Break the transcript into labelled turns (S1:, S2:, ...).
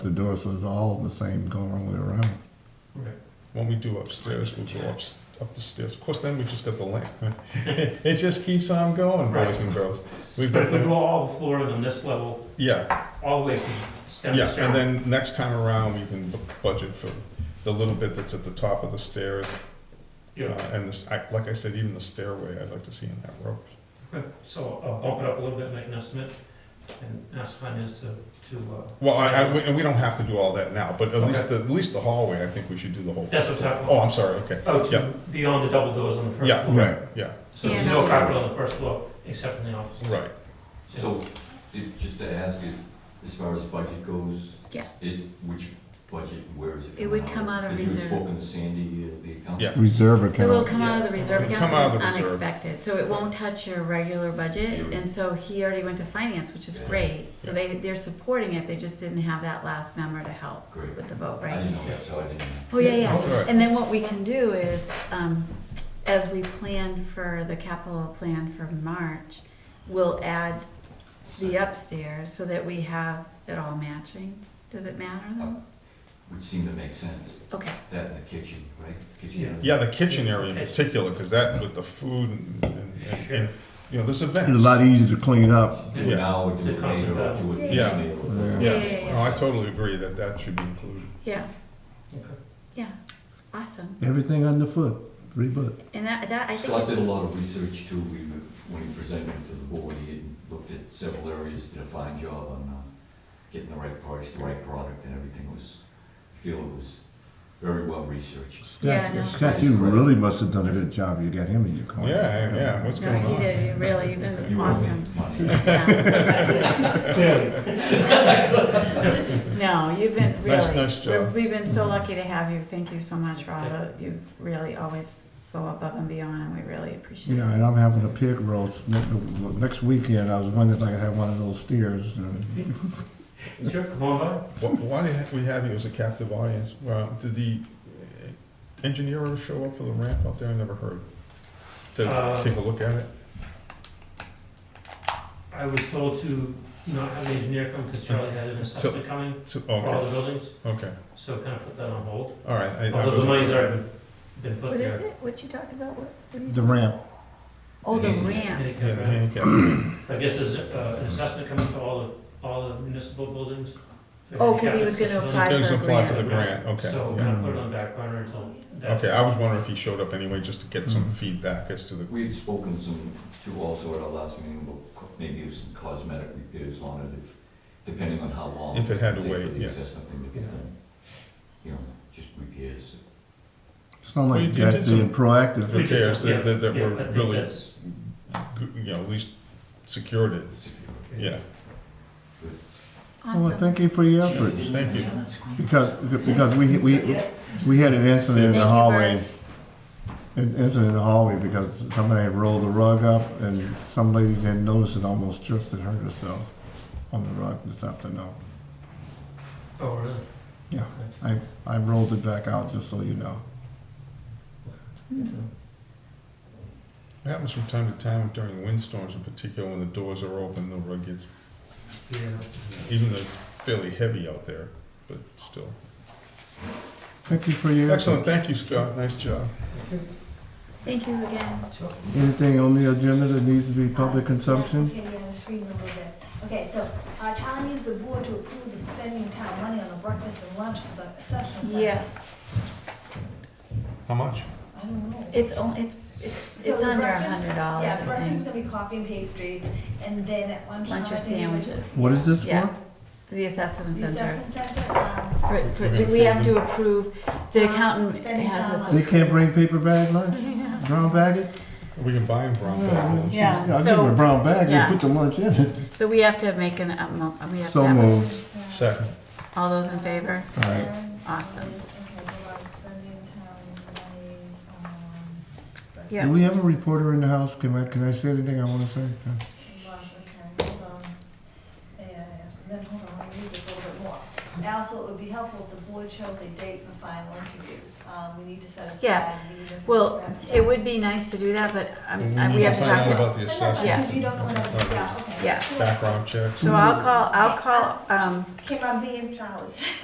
S1: The doors was all the same going all the way around.
S2: Right. When we do upstairs, we'll go up, up the stairs. Of course, then we just got the lamp. It just keeps on going, boys and girls. We've
S3: But if we
S2: got,
S3: go all the floor on this level,
S2: yeah,
S3: all the way from stem
S2: yeah,
S3: to stern,
S2: and then next time around, we can bu- budget for the little bit that's at the top of the stairs. uh,
S3: yeah,
S2: And this, I- like I said, even the stairway, I'd like to see in that rope.
S3: so I'll bump it up a little bit, make an estimate, and ask finance to, to, uh,
S2: Well, I, I, we- and we don't have to do all that now, but at least, the at least the hallway, I think we should do the whole.
S3: that's what I'm talking
S2: Oh,
S3: about.
S2: I'm sorry, okay.
S3: Oh,
S2: yeah.
S3: to beyond the double doors on the first
S2: Yeah,
S3: floor.
S2: right, yeah,
S3: So there's
S4: Yeah,
S3: no
S4: that's-
S3: carpet on the first floor, except in the office.
S2: right.
S5: So, it, just to ask you, as far as budget goes?
S4: Yeah.
S5: It, which budget, where is it?
S4: It would come out of
S5: Because
S4: reserve.
S5: you had spoken to Sandy, uh, the accountant.
S2: Yeah.
S1: Reserve account.
S4: So it'll come out of the reserve
S2: It'll
S4: account,
S2: come out
S4: because
S2: of
S4: it's
S2: the reserve.
S4: unexpected, so it won't touch your regular budget,
S5: Yeah.
S4: and so he already went to finance, which is
S5: Yeah.
S4: great. So
S2: Yeah.
S4: they, they're supporting it, they just didn't have that last member to help
S5: Great,
S4: with the vote,
S5: I
S4: right?
S5: didn't know that, so I didn't.
S4: Oh, yeah, yeah,
S2: That's all right.
S4: and then what we can do is, um, as we plan for the capital plan for March, we'll add the upstairs so that we have it all matching, does it matter though?
S2: Oh.
S5: Would seem to make sense,
S4: Okay,
S5: that in the kitchen, right? Kitchen area.
S2: Yeah, the kitchen area in particular, because that with the food and, and- and- and, you know, there's events.
S1: It's a lot easier to clean up.
S5: Do it now, or do
S3: Is it
S5: it later, or do it
S4: Yeah.
S5: piecemeal.
S4: Yeah, yeah, yeah.
S2: No, Oh, I totally agree that that should be included.
S4: yeah,
S3: Okay.
S4: yeah, awesome,
S1: Everything underfoot, three foot.
S4: and that, that, I think.
S5: Scott did a lot of research too, we, when he presented it to the board, he had looked at several areas, did a fine job on, uh, getting the right price, the right product, and everything was, I feel it was very well researched.
S4: Yeah, I know.
S1: Scott, you really must have done a good job. You got him in your corner.
S2: Yeah, yeah, what's
S4: No,
S2: going
S4: you
S2: on?
S4: did, you really, you've been
S5: You owe me
S4: awesome.
S5: money.
S4: Yeah.
S3: Clearly,
S4: No, you've been really.
S2: Nice- nice job.
S4: We've been so lucky to have you, thank you so much for all the, you really always go above and beyond, and we really appreciate
S1: Yeah,
S4: it.
S1: and I'm having a pig roast ne- next weekend. I was wondering if I could have one of those steers. uh, and-
S3: sure, come on by.
S2: Wh- Why do we have you as a captive audience? Well, did the uh, engineer ever show up for the ramp out there? I never heard. To
S3: Uh,
S2: take a look at it?
S3: I was told to not have the engineer come because Charlie had an assessment coming
S2: So-
S3: for all
S2: Okay,
S3: the buildings,
S2: okay,
S3: so kind of put that on hold.
S2: all right. I- I
S3: Although the
S2: wasn't-
S3: money's already been put
S4: What is
S3: there.
S4: it, what you talking about, what, what do
S1: The
S4: you?
S1: ramp.
S4: Oh, the
S5: Yeah.
S4: ramp,
S2: Yeah, the
S3: Handicap.
S2: handicap.
S3: I guess there's uh, an assessment coming for all the, all the municipal buildings.
S4: Oh, 'cause he was gonna
S3: Handicap
S4: apply
S2: Goes
S4: for a
S2: apply for the
S4: grant.
S2: grant, okay.
S3: So
S2: yeah.
S3: kind of put it on the back burner until that's.
S2: Okay, I was wondering if he showed up anyway, just to get some feedback as to the,
S5: We had spoken some, to also at our last meeting, about co- maybe some cosmetic repairs on it, if, depending on how long.
S2: If it had to
S5: would take
S2: wait,
S5: For the
S2: yeah.
S5: assessment thing to get
S3: Yeah.
S5: done. You know, just repairs.
S1: It's not
S2: Well,
S1: like
S2: you-
S1: you
S2: you
S1: got
S2: did
S1: being
S2: some-
S1: proactive.
S3: We did
S2: Repairs
S3: some- yeah,
S2: that- that- that
S3: yeah,
S2: were
S3: I think
S2: really-
S3: that's-
S2: good- you know, at least secured it, yeah.
S1: Well,
S4: awesome.
S1: Oh, thank you for your efforts.
S2: Thank you.
S1: Because, because we, we, we had an incident in
S4: Thank you,
S1: the
S4: Bert.
S1: hallway. An incident in the hallway because somebody had rolled the rug up and some lady didn't notice and almost tripped and hurt herself on the rug this afternoon.
S3: Oh, really?
S1: Yeah.
S3: Okay.
S1: I, I rolled it back out just so you know.
S2: It happens from time to time during windstorms in particular, when the doors are open, the rug gets,
S3: Yeah.
S2: even though it's fairly heavy out there, but still.
S1: Thank you for your
S2: Excellent,
S1: efforts.
S2: thank you, Scott, nice job.
S4: Thank you again.
S3: Sure.
S1: Anything on the agenda that needs to be public consumption?
S6: Okay, yeah, three numbers there. Okay, so, uh, Charlie needs the board to approve the spending town money on the breakfast and lunch for the assessment center.
S4: Yes,
S2: How much?
S6: I don't know.
S4: it's on, it's, it's,
S6: So
S4: it's
S6: the
S4: under a
S6: breakfast-
S4: hundred dollars,
S6: Yeah,
S4: I
S6: breakfast is
S4: think.
S6: gonna be coffee and pastries, and then at lunch.
S4: Lunch or sandwiches,
S1: What is this
S4: yeah,
S1: for?
S4: for the assessment
S6: The
S4: center.
S6: assessment center, um,
S4: For, for,
S2: Okay.
S4: we have to approve, the accountant
S6: Spending time
S4: has us.
S6: on-
S1: They can't bring paper bag lunch? Brown baggage?
S2: We can buy him brown bag.
S4: Yeah.
S1: I'll give
S4: so-
S1: them a brown bag
S4: yeah.
S1: and put the lunch in it.
S4: So we have to make an, um, mo- we have to
S1: So
S4: have, a-
S1: moved.
S2: Second,
S4: all those in favor?
S1: All right.
S6: um,
S4: Awesome.
S6: Okay, so about spending town money, um,
S1: Do
S4: Yeah,
S1: we have a reporter in the house? Can I, can I say anything I want to say?
S6: Well, okay, hold on. Yeah, yeah, then hold on, let me read this a little bit more. Al also, it would be helpful if the board chose a date for final interviews. Um, we need to set aside.
S4: Yeah.
S6: we need to-
S4: Well, it would be nice to do that, but I'm-
S2: But
S4: I-
S2: we
S4: we
S2: need
S4: have to talk
S2: find out
S4: to,
S2: About the
S6: But that's
S2: assessments.
S6: fine,
S4: Yeah.
S6: because you don't know
S2: and-
S6: what, yeah, okay.
S4: Yeah.
S2: Background checks.
S4: so I'll call, I'll call, um,
S6: Kim, I'm being Charlie.